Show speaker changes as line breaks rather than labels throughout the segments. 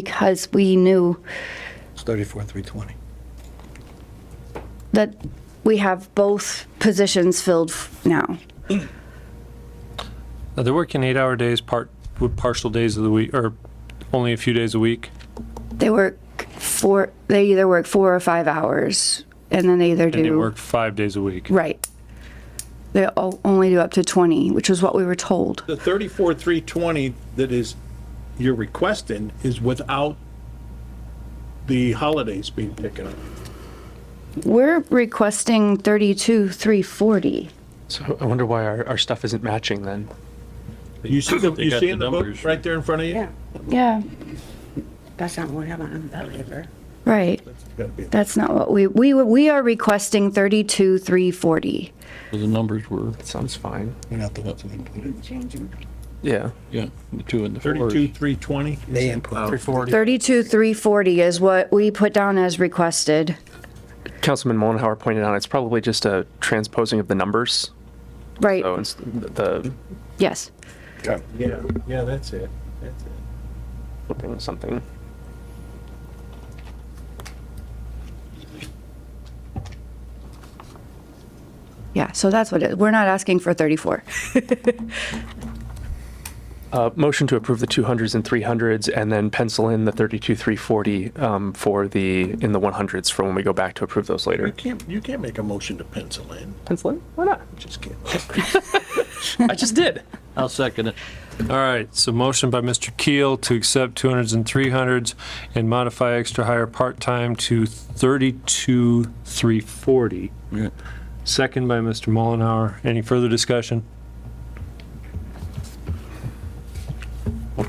because we knew
It's 34, 320.
that we have both positions filled f- now.
Now, they're working eight-hour days, part, with partial days of the week, or only a few days a week.
They work four, they either work four or five hours, and then they either
And they
do,
work five days a week.
right. They o- only do up to 20, which was what we were told.
The thirty-four, three twenty that is, you're requesting is without the holidays being taken up.
We're requesting 32, 340.
So I wonder why our, our stuff isn't matching then.
You see the,
They
you
got
see
the
in the book
numbers.
right there in front of you?
Yeah,
Yeah,
that's not what happened on the river.
right.
Gotta be-
That's not what we, we, were- we are requesting 32, 340.
So The numbers were,
That sounds fine.
We're not the ones that included.
Yeah.
yeah, the two and the fours.
Thirty-two, three twenty?
They input.
340.
32, 340 is what we put down as requested.
Councilman Mollenhauer pointed out it's probably just a transposing of the numbers.
Right,
So it's the
yes.
Yeah, yeah, that's it, that's it.
flipping something.
Yeah, so that's what it, we're not asking for 34.
Uh, motion to approve the 200s and 300s and then pencil in the 32 340 um, for the in the 100s for when we go back to approve those
You
later.
can't, you can't make a motion to pencil in,
Pencil in? Why not?
just kidding.
I just did.
I'll second it.
All right, so motion by Mr. Keel to accept 200s and 300s and modify extra hire part-time to 32,340.
Yeah.
Second by Mr. Mullenhour. Any further discussion?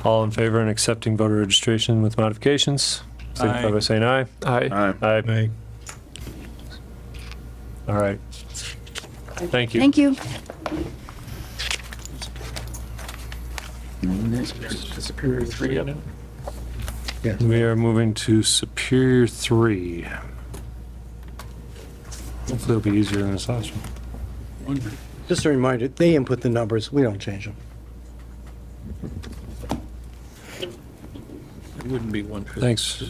All in favor in accepting voter registration with modifications? Signify by saying aye.
I
Aye. All right. Thank you.
Thank you.
We are moving to Superior 3. Hopefully it'll be easier than this last one.
Just a reminder, they input the numbers, we don't change them.
It wouldn't be one fifty.
Thanks.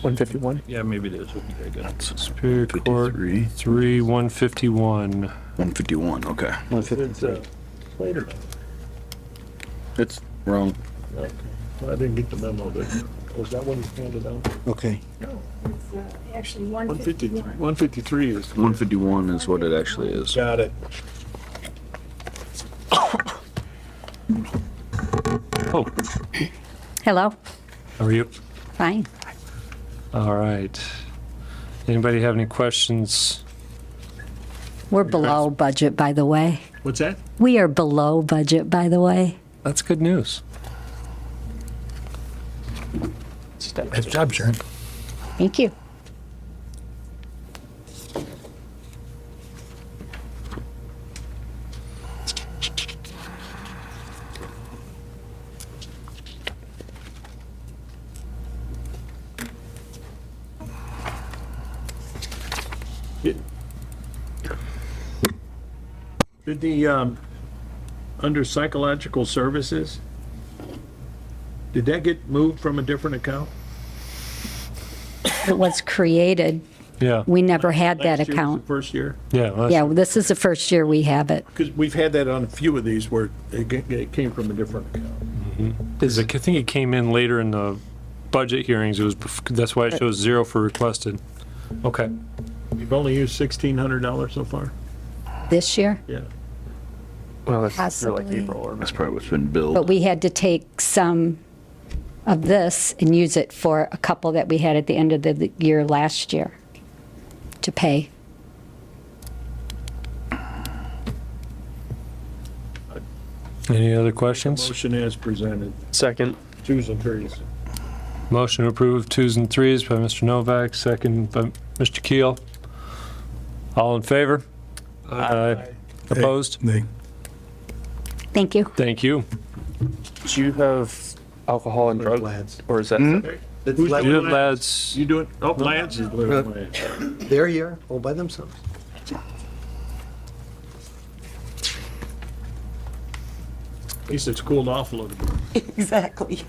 151.
Yeah, maybe it is. Okay, I got it.
Superior Court 3, 151.
151, okay.
It's, uh, later,
It's wrong.
okay, Well, I didn't get the memo, but, was that one handed out?
Okay.
Actually,
One fifty-three. One fifty-three is.
151 is what it actually is.
Got it.
Oh,
Hello.
how are you?
Fine.
All right. Anybody have any questions?
We're below budget, by the way.
What's that?
We are below budget, by the way.
That's good news.
Nice job, Sharon.
Thank you.
Did the, um, under psychological services, did that get moved from a different account?
It was created.
Yeah,
We never had
Last year
that
was the
account.
First year?
yeah. well, that's-
Yeah, this is the first year we have it.
Because we've had that on a few of these where it, g- it came from a different account.
Is it- I think it came in later in the budget hearings. It was, bef- that's why it shows zero for requested. Okay.
We've only used sixteen hundred dollars so far?
This year?
Yeah.
Well, that's through like
Possibly.
April or
That's probably what's been
But
billed.
we had to take some of this and use it for a couple that we had at the end of the- the year last year to pay.
Any other questions?
Motion as presented.
second.
Twos and threes.
Motion to approve of twos and threes by Mr. Novak, second by Mr. Keel. All in favor? Aye. Opposed?
Thank you.
Thank you.
Do you have alcohol and drug
Lads.
or is that
It's
Who's
like-
You have
Lance.
lads.
You doing, oh, Lance is doing it.
They're here, all by themselves.
At least it's cooled off a little bit.
Exactly.